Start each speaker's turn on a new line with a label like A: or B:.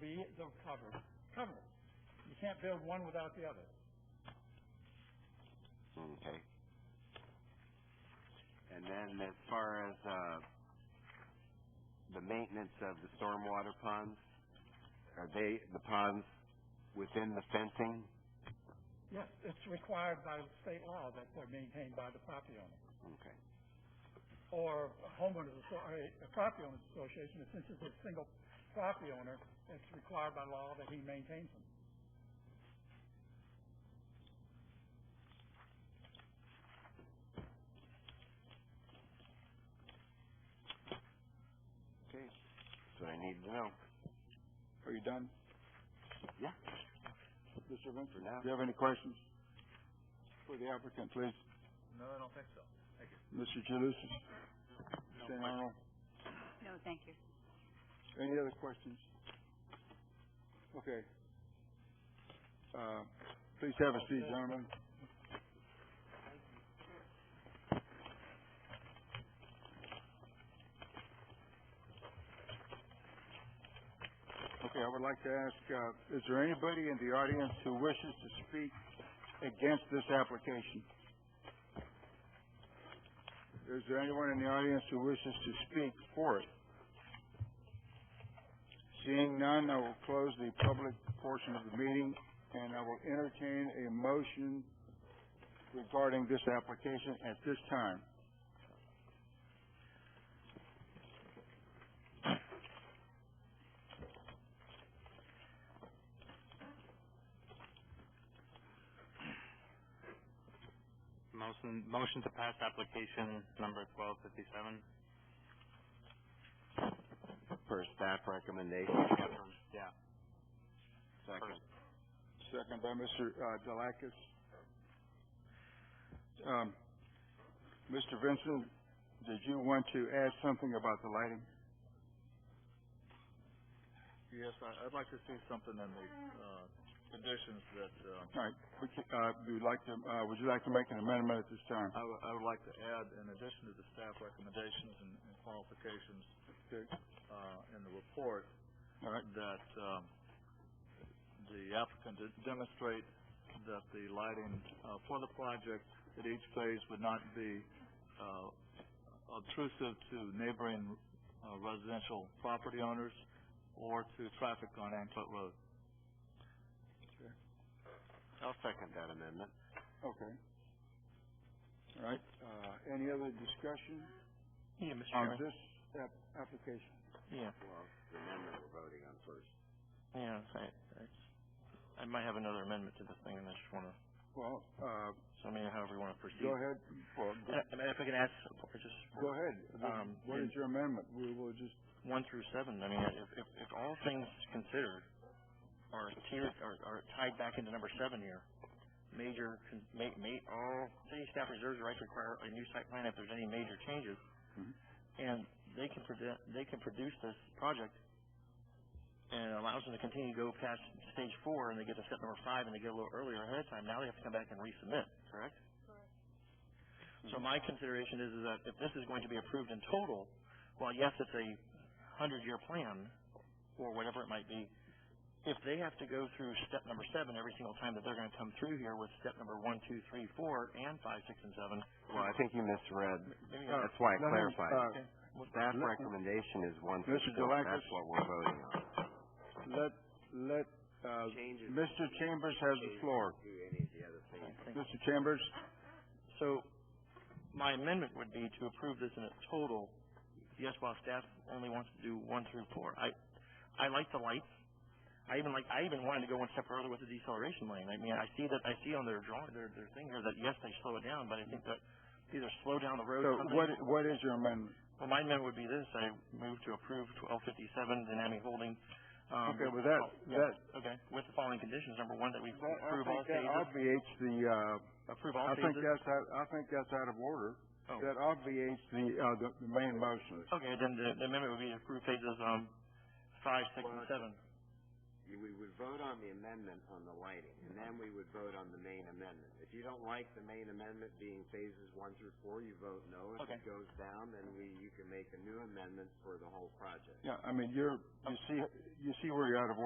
A: the- they'll cover, cover it. You can't build one without the other.
B: Okay. And then as far as, uh, the maintenance of the stormwater ponds, are they, the ponds within the fencing?
A: Yes, it's required by state law that they're maintained by the property owner.
B: Okay.
A: Or a homeowners, asso- or a a property owners association, and since it's a single property owner, it's required by law that he maintains them.
B: Okay. That's what I needed to know.
C: Are you done,
B: Yeah,
C: Mr. Vincent?
B: for now.
C: Do you have any questions for the applicant, please?
A: No, I don't think so.
C: Mr. Jalusis? Mr. Arnold?
D: No, thank you.
C: Any other questions? Okay. Uh, please have a seat, gentlemen. Okay, I would like to ask, uh, is there anybody in the audience who wishes to speak against this application? Is there anyone in the audience who wishes to speak for it? Seeing none, I will close the public portion of the meeting, and I will entertain a motion regarding this application at this time.
E: Motion, motion to pass application number twelve fifty-seven.
B: Per staff recommendation.
E: Yeah.
B: Second.
C: Second by Mr. uh, Delakis. Um, Mr. Vincent, did you want to add something about the lighting?
F: Yes, I, I'd like to see something in the, uh, conditions that, uh,
C: All right, would you, uh, you'd like to, uh, would you like to make an amendment at this time?
F: I would, I would like to add, in addition to the staff recommendations and and qualifications,
C: Okay.
F: uh, in the report,
C: All right,
F: that, um, the applicant did demonstrate that the lighting, uh, for the project at each phase would not be, uh, obtrusive to neighboring uh, residential property owners or to traffic on Anclet Road.
B: I'll second that amendment.
C: Okay. All right, uh, any other discussion
A: Yeah, Mr.
C: on this app- application?
E: Yeah,
B: Well, the amendment we're voting on first.
E: yeah, I, I, I might have another amendment to this thing, and I just wanna,
C: Well, uh,
E: so I mean, however you wanna proceed.
C: go ahead, well, go-
E: Uh, I mean, if I could ask, support, just
C: go ahead.
E: Um,
C: What is your amendment? We will just,
E: one through seven, I mean, if, if, if all things considered are tiered, are, are tied back into number seven here, major, con- ma- ma- all city staff reserves the right to require a new site plan if there's any major changes.
C: Mhm.
E: And they can present, they can produce this project and it allows them to continue to go past stage four and they get to step number five and they get a little earlier ahead of time. Now they have to come back and resubmit, correct? So my consideration is, is that if this is going to be approved in total, while yes, it's a hundred-year plan, or whatever it might be, if they have to go through step number seven every single time that they're gonna come through here with step number one, two, three, four, and five, six, and seven,
B: Well, I think you misread.
E: maybe I-
B: That's why I
C: let him,
B: clarified.
C: uh,
B: Staff recommendation is one through
C: Mr.
B: four.
C: Delakis?
B: That's what we're voting on.
C: let, let, uh,
B: Changes.
C: Mr. Chambers has the floor.
B: Do any of the other things.
C: Mr. Chambers,
E: So, my amendment would be to approve this in its total, yes, while staff only wants to do one through four. I, I like the lights. I even like, I even wanted to go one step further with the deceleration lane. I mean, I see that, I see on their drawing, their, their thing here that, yes, they slow it down, but I think that either slow down the road
C: so
E: or something.
C: what, what is your amendment?
E: Well, my amendment would be this, I move to approve twelve fifty-seven dynamic holding, um.
C: Okay, with that,
E: yeah,
C: that,
E: Okay, with the following conditions. Number one, that we
C: that, I
E: approve all
C: think that
E: phases,
C: obviates the,
E: approve
C: uh,
E: all
C: I think
E: phases.
C: that's out, I think that's out of order.
E: Oh.
C: That obviates the, uh, the, the main motion.
E: Okay, then the, the amendment would be to approve phases, um, five, six, and seven.
B: You- We would vote on the amendment on the lighting, and then we would vote on the main amendment. If you don't like the main amendment being phases one through four, you vote no. If
E: Okay.
B: it goes down, then we, you can make a new amendment for the whole project.
C: Yeah, I mean, you're, you see, you see where you're out of order.